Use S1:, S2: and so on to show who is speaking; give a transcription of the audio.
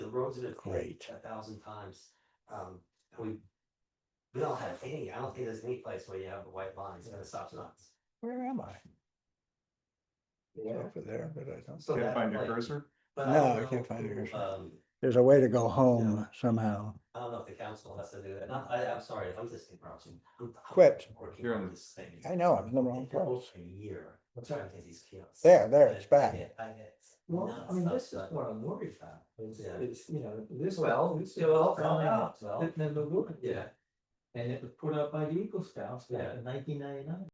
S1: roads have been paved
S2: Great.
S1: a thousand times. Um, and we. We all have any, I don't think there's any place where you have the white lines and it stops nuts.
S2: Where am I? Over there, but I don't.
S1: So
S3: Can't
S1: that,
S3: find your
S1: like,
S3: cursor?
S1: but I
S2: No,
S1: don't
S2: I can't
S1: know
S2: find
S1: who,
S2: yours.
S1: Um,
S2: There's a way to go home somehow.
S1: I don't know if the council has to do that. Not, I, I'm sorry, I'm just interrupting. I'm- I'm
S2: Quit.
S1: Working
S3: You're
S1: on
S3: on-
S1: this thing.
S2: I know, I'm in the wrong
S1: It's been
S2: place.
S1: over A year. I'm trying to get these kiosks.
S2: There, there, it's
S1: I
S2: back.
S1: get- I get
S4: Well, I mean,
S1: nonstop
S4: this is
S1: stuff.
S4: what I'm worried about, is,
S1: Yeah.
S4: is, you know, this.
S1: Well,
S4: this
S1: it will all
S4: is-
S1: come out, well.
S4: Then the wood,
S1: Yeah.
S4: and it was put up by the Eagle Scouts back
S1: Yeah.
S4: in nineteen ninety-nine.